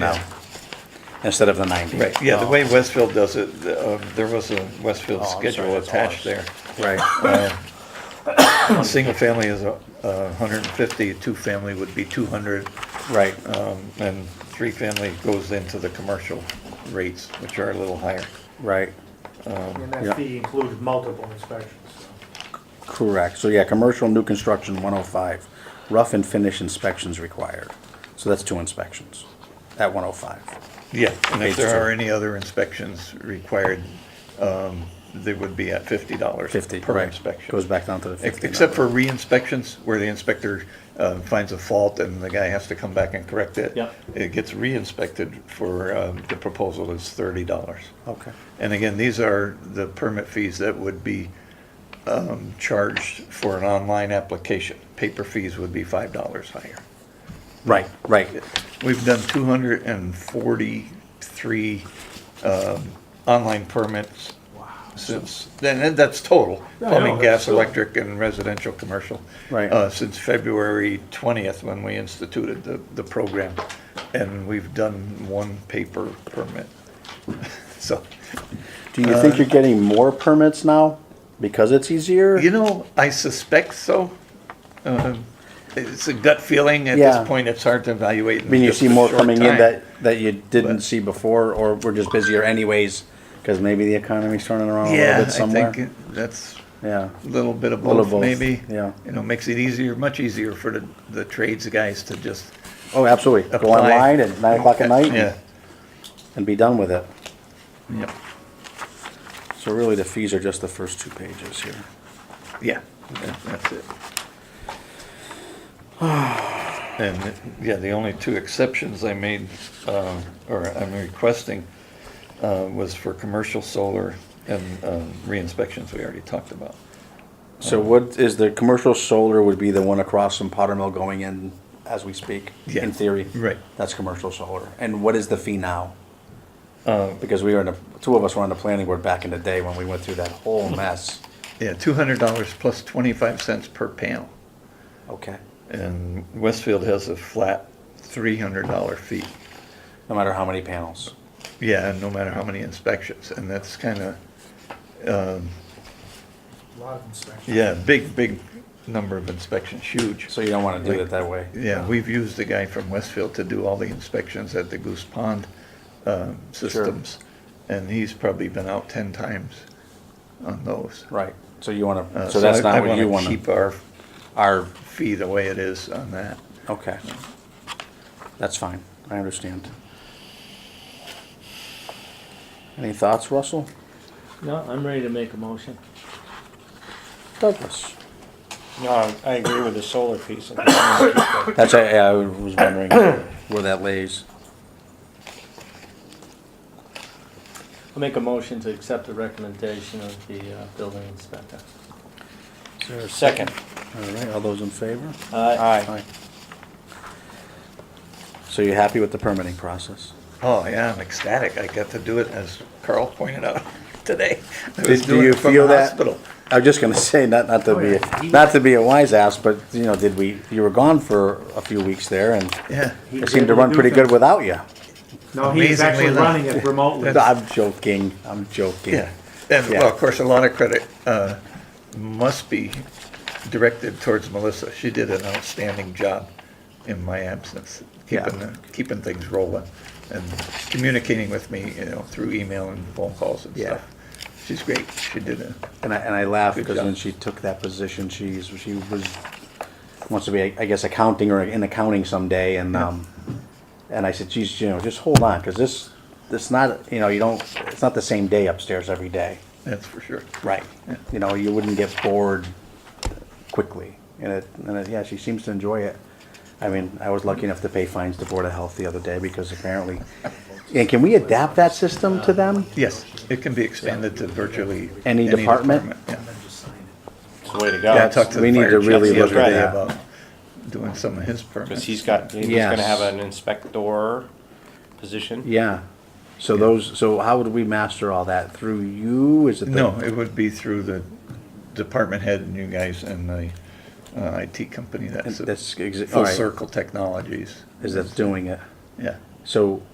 now, instead of the 90. Right, yeah, the Oh, way Westfield does it, the, uh, there was a Westfield Oh, I'm sorry, schedule that's attached there. ours. Right. Single family is a a hundred and fifty, two-family would be two hundred, Right, uh, um, and three-family goes into the commercial rates, which are a little higher. right, And Yeah. that fee includes multiple inspections. so. correct. So yeah, commercial new construction 105, rough and finish inspections required. So that's two inspections at 105. Yeah, and Page if there two. are any other inspections required, um, they would be at fifty dollars 50, per right. inspection. Goes back down to the 50. Except number. for re-inspections, where the inspector uh, finds a fault and the guy has to come back and correct it. Yeah. It gets re-inspected for, um, the proposal is thirty dollars. Okay, And again, these are the permit fees that would be um, charged for an online application. Paper fees would be five dollars higher. right, right, We've done two hundred and forty-three um, online permits since, then and that's total, Yeah, I plumbing, know, gas, that's- electric, and residential, commercial. Right. uh, Since February twentieth, when we instituted the, the program, and we've done one paper permit. So, Do Uh, you think you're getting more permits now because it's easier? you know, I suspect so. Um, It's a gut feeling at Yeah. this point, it's hard to evaluate. I mean, you see more coming in that, that you didn't But- see before, or we're just busier anyways, because maybe the economy's turning around a Yeah, little I bit somewhere? think that's Yeah, little bit of Little both, both, maybe. yeah. You know, makes it easier, much easier for the, the trades guys to just oh, absolutely. Go apply. online at nine o'clock at night Yeah, and- and be done with it. yeah, So really, the fees are just the first two pages here. yeah, that- that's it. And, yeah, the only two exceptions I made, um, or I'm requesting, uh, was for commercial solar and, um, re-inspections we already talked about. So what is the commercial solar would be the one across from Potter Mill going in as we speak, Yeah, in theory? right. That's commercial solar. And what is the fee now? Uh, Because we were in the, two of us were on the planning board back in the day when we went through that whole mess. Yeah, two hundred dollars plus twenty-five cents per panel. Okay. And Westfield has a flat three hundred dollar fee. No matter how many panels. Yeah, and no matter how many inspections, and that's kind of, A lot of inspections. yeah, big, big number of inspections, huge. So you don't want to do it that way. Yeah, we've used the guy from Westfield to do all the inspections at the Goose Pond um, systems, and he's probably been out 10 times on those. Right. So you want Uh, to, so that's I- not what you want I want to keep to, our our, fee the way it is on that. okay. That's fine. I understand. Any thoughts, Russell? No, I'm ready to make a motion. Douglas? No, I- I agree with the solar piece. I think we wanna keep that. That's, I, I was wondering where that lays. I'll make a motion to accept the recommendation of the uh, building inspector. Is there a Second. All right, all those in favor? Aye. Aye. So you're happy with the permitting process? Oh, yeah, I'm ecstatic. I got to do it, as Carl pointed out today. I Did- was do doing you it from feel the that- hospital. I was just gonna say, not, not Oh, to be, a- not to be a wise ass, but, you know, did we, you were gone for a few weeks there and Yeah. He it seemed to did run do pretty good things. without you. No, he's Amazingly actually enough. running it remotely. I'm joking, I'm joking. Yeah, and Yeah. well, of course, a lot of credit uh, must be directed towards Melissa. She did an outstanding job in my absence, Yeah. keeping, the- keeping things rolling and communicating with me, you know, through email and phone calls and Yeah. stuff. She's great. She did it. And I, and I laugh Good because job. when she took that position, she's, she was, wants to be, I guess, accounting or in accounting someday, and, um, and I said, geez, you know, just hold on, because this, this not, you know, you don't, it's not the same day upstairs every day. That's for sure. Right. You know, you wouldn't get bored quickly, and it, and it, yeah, she seems to enjoy it. I mean, I was lucky enough to pay fines to Board of Health the other day, because apparently, and can we adapt that system to them? Yes, it can be expanded to virtually. Any department? Yeah. It's the way to Yeah, I go. talked to we the need fire to chief really the look other at day that. about doing some of his permits. Because he's got, he's Yes. gonna have an inspector position. Yeah. So those, so how would we master all that? Through you? Is it? the- No, it would be through the department head and you guys and the uh, IT company that's, That's exa- all Full right. Circle Technologies. Is that doing it? Yeah. So